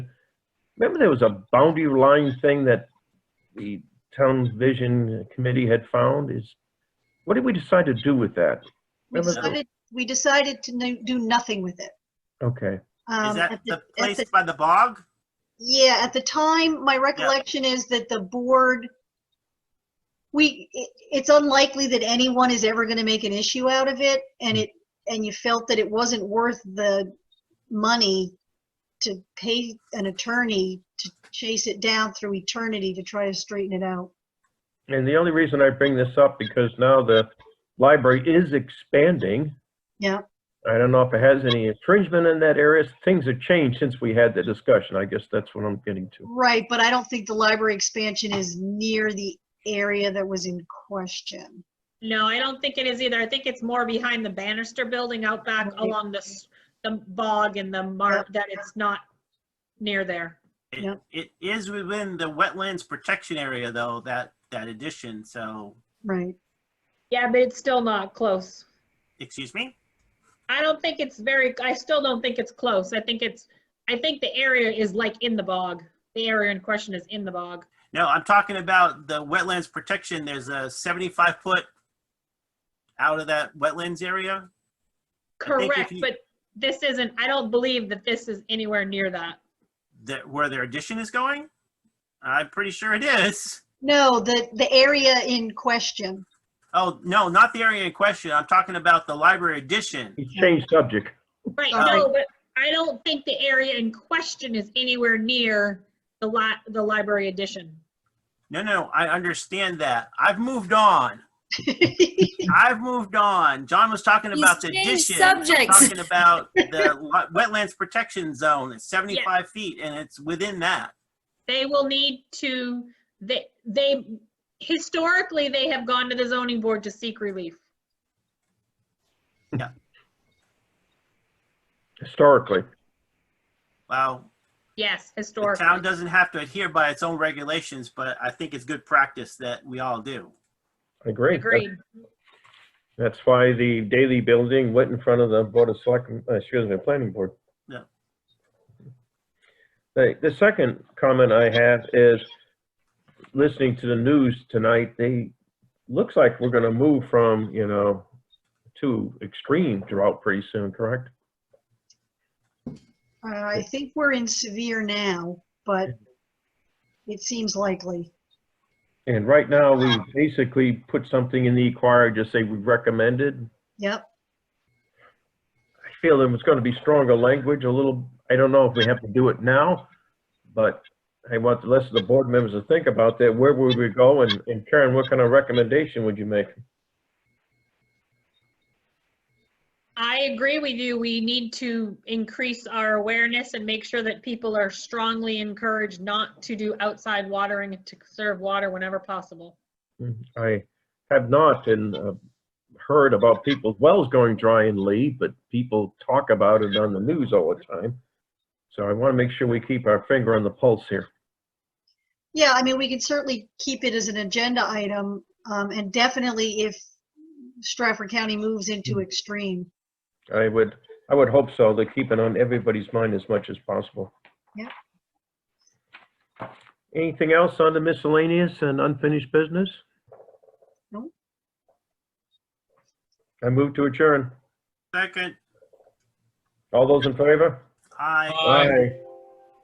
Remember there was a boundary line thing that the town vision committee had found is, what did we decide to do with that? We Remember- decided, we decided to no- do nothing with it. Okay, Um, Is that at the at place the- by the bog? Yeah, at the time, my recollection is that the board, we, it- it's unlikely that anyone is ever going to make an issue out of it. And Hmm. it, and you felt that it wasn't worth the money to pay an attorney to chase it down through eternity to try to straighten it out. and the only reason I bring this up because now the library is expanding. Yeah. I don't know if it has any infringement in that area. Things have changed since we had the discussion. I guess that's what I'm getting to. Right, but I don't think the library expansion is near the area that was in question. No, I don't think it is either. I think it's more behind the Bannister building out back Okay. along the, s- the bog and the mark, that it's not near there. It- Yep. It is within the wetlands protection area though, that, that addition, so, Right. Yeah, but it's still not close. excuse me? I don't think it's very, I still don't think it's close. I think it's, I think the area is like in the bog. The area in question is in the bog. No, I'm talking about the wetlands protection. There's a 75 foot out of that wetlands area. I think if Correct, you- but this isn't, I don't believe that this is anywhere near that. that where their addition is going? I'm pretty sure it is. No, the, the area in question. Oh, no, not the area in question. I'm talking about the library addition. He's changed subject. Right, Sorry. no, but I don't think the area in question is anywhere near the li, the library addition. No, no, I understand that. I've moved on. Uh, I've moved on. John was talking He's about the changed addition. I'm subjects. Talking about the lo- wetlands protection zone. It's 75 feet and it's within that. They will need to, they, they, historically, they have gone to the zoning board to seek relief. historically. Wow. Yes, The historically. town doesn't have to adhere by its own regulations, but I think it's good practice that we all do. I agree. Agreed. That's why the daily building went in front of the Board of Select, uh, excuse me, Planning Board. Yeah. The, the second comment I have is, listening to the news tonight, they, looks like we're gonna move from, you know, to extreme drought pretty soon, correct? Uh, I think we're in severe now, but it seems likely. And right now, we basically put something in the inquiry, just say we recommended. Yep. I feel there was gonna be stronger language, a little, I don't know if we have to do it now, but I want the rest of the board members to think about that, where would we go, and and Karen, what kind of recommendation would you make? I agree with you. We need to increase our awareness and make sure that people are strongly encouraged not to do outside watering and to conserve water whenever possible. I have not and uh, heard about people's wells going dry in Lee, but people talk about it on the news all the time. So I wanna make sure we keep our finger on the pulse here. Yeah, I mean, we can certainly keep it as an agenda item, um, and definitely if Stratford County moves into extreme. I would, I would hope so, to keep it on everybody's mind as much as possible. Yeah. Anything else on the miscellaneous and unfinished business? No. I move to adjourn. Second, All those in favor? I. Aye.